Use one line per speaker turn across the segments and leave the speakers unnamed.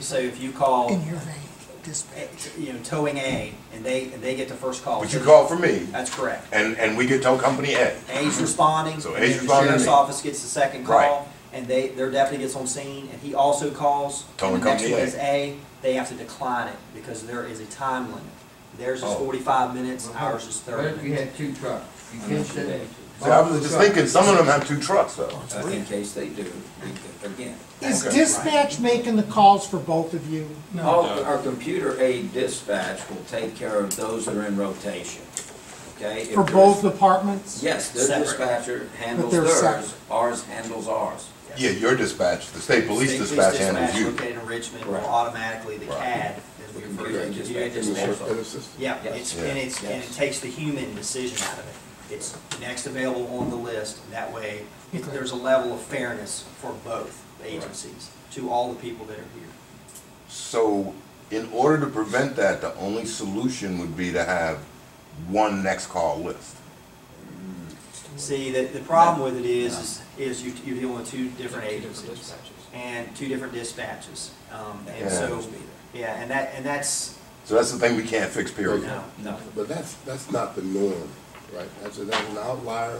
So if you call,
in your vein,
eh,
dispatch.
you know, towing A, and they, and they get the first call.
But you called for me,
That's correct.
and, and we get tow company A.
A's responding.
So
and
A's
then the
responding to
Sheriff's
me.
office gets the second
Right.
call, and they, their deputy gets on scene, and he also calls.
Towing
and the next
company
one
A.
is A, they have to decline it, because there is a time limit. Theirs is
Oh.
forty-five minutes, ours is
What
thirty
if you had
minutes.
two trucks? You can't send.
See,
Oh,
I was just thinking, some of them have two trucks though.
Uh, in case they do, we could- again.
Is
Okay.
dispatch making the calls for both of you?
All, our computer aid dispatch will take care of those that are in rotation, okay? If
For
there's-
both departments?
Yes, their
Separate.
dispatcher handles
they're
theirs,
separate.
ours handles ours.
Yeah, your dispatch, the state police
State
dispatch handles you.
Located in Richmond, will
Right.
automatically the
Right.
CAD, as we
The
refer
computer
to it, computer
dispatch.
dispatch. Yeah,
Yes.
it's, and it's, and it
Yes.
takes the human decision out of it. It's next available on the list, and that way, it-
Okay.
there's a level of fairness for both agencies, to all the people that are here.
So, in order to prevent that, the only solution would be to have one next call list.
See, the, the problem with it is, is- is you, you're dealing with two different agencies and two different dispatches. Um, and
Yeah.
so, yeah, and that, and that's,
So that's the thing we can't fix, period.
no,
No.
But that's, that's not the norm, right? That's, that's an outlier,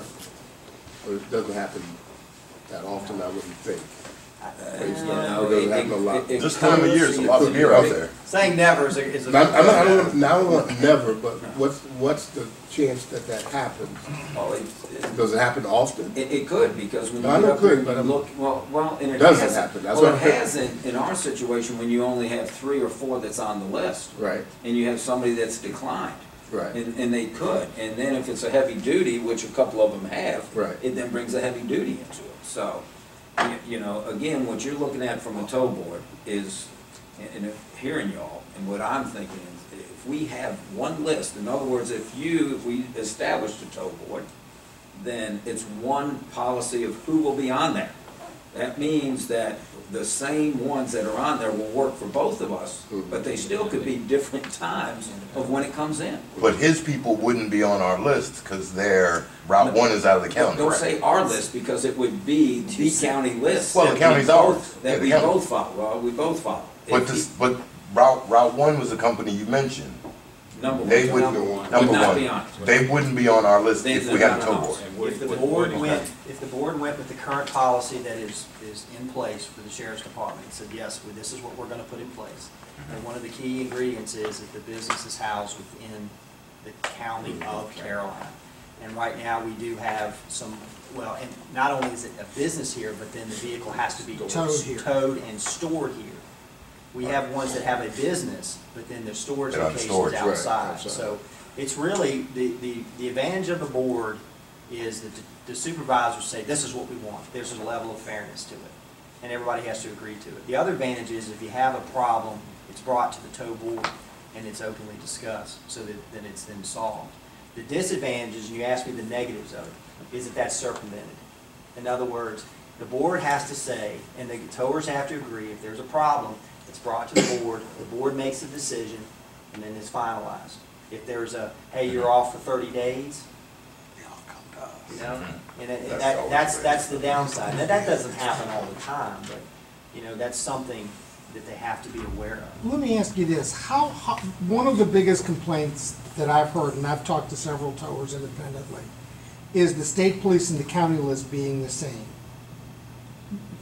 or it doesn't happen that often, I wouldn't think.
Uh, you know,
It doesn't
it-
happen a lot.
it- it
This time of year, there's a lot of beer out there.
saying never is a, is a.
Now, I don't, I don't, now, I don't want never, but what's, what's the chance that that happens?
Well, it- it-
Does it happen often?
It, it could, because when you
No, I know
get
it
up there
could,
and
but
you
I'm-
look, well, well, and it
Doesn't
has.
happen, that's
Well,
what
it
I'm-
has in, in our situation, when you only have three or four that's on the list.
Right.
And you have somebody that's declined.
Right.
And, and they could, and then if it's a heavy duty, which a couple of them have.
Right.
It then brings a heavy duty into it, so, you, you know, again, what you're looking at from a tow board is, and, and hearing y'all, and what I'm thinking is, if we have one list, in other words, if you, if we established a tow board, then it's one policy of who will be on there. That means that the same ones that are on there will work for both of us, but they still could be different times of when it comes in.
But his people wouldn't be on our list, cause their Route One is out of the county.
Don't say uh, our list, because it would be the county list.
Well, the
that we
county's
both-
ours. Yeah,
That
the
we
county.
both follow, well, we both follow.
But
If
this,
he-
but Route, Route One was the company you mentioned.
Number
They
one,
wouldn't,
number one,
number
would not be on
one, they wouldn't be on our list
They-
if
they're
we had a
not
tow
on
board.
ours.
If the board went, if the board went with the current policy that is, is in place for the sheriff's department, and said, yes, well, this is what we're gonna put in place. And one of the key ingredients is that the business is housed within the county of Caroline. And right now, we do have some, well, and not only is it a business here, but then the vehicle has to be
Towed here.
towed and stored here. We have ones that have a business, but then their storage
They're on
locations
storage, right,
outside.
outside.
So it's really, the, the, the advantage of the board is that the supervisors say, this is what we want. There's a level of fairness to it, and everybody has to agree to it. The other advantage is if you have a problem, it's brought to the tow board and it's openly discussed, so that, that it's then solved. The disadvantages, and you asked me the negatives of it, is that that's circumvented. In other words, the board has to say, and the towers have to agree, if there's a problem, it's brought to the board, the board makes a decision, and then it's finalized. If there's a, hey, you're off for thirty days, you know, and it-
That's
that,
always
that's,
great.
that's the downside. Now, that doesn't happen all the time, but, you know, that's something that they have to be aware of.
Let me ask you this, how, how, one of the biggest complaints that I've heard, and I've talked to several towers independently, is the state police and the county list being the same.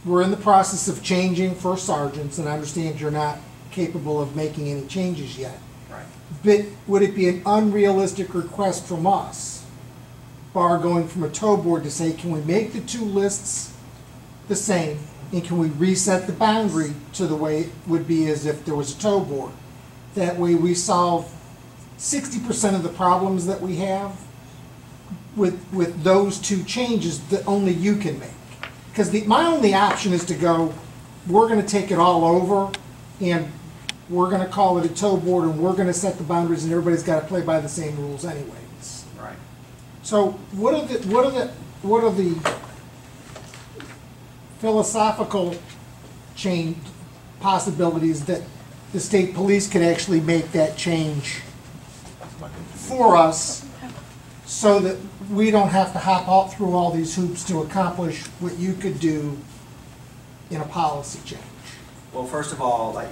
We're in the process of changing first sergeants, and I understand you're not capable of making any changes yet.
Right.
But would it be an unrealistic request from us, bar going from a tow board to say, can we make the two lists the same? And can we reset the boundary to the way it would be as if there was a tow board? That way we solve sixty percent of the problems that we have with, with those two changes that only you can make. Because the, my only option is to go, we're gonna take it all over, and we're gonna call it a tow board, and we're gonna set the boundaries, and everybody's gotta play by the same rules anyways.
Right.
So what are the, what are the, what are the philosophical change possibilities that the state police could actually make that change for us so that we don't have to hop out through all these hoops to accomplish what you could do in a policy change?
Well, first of all, like,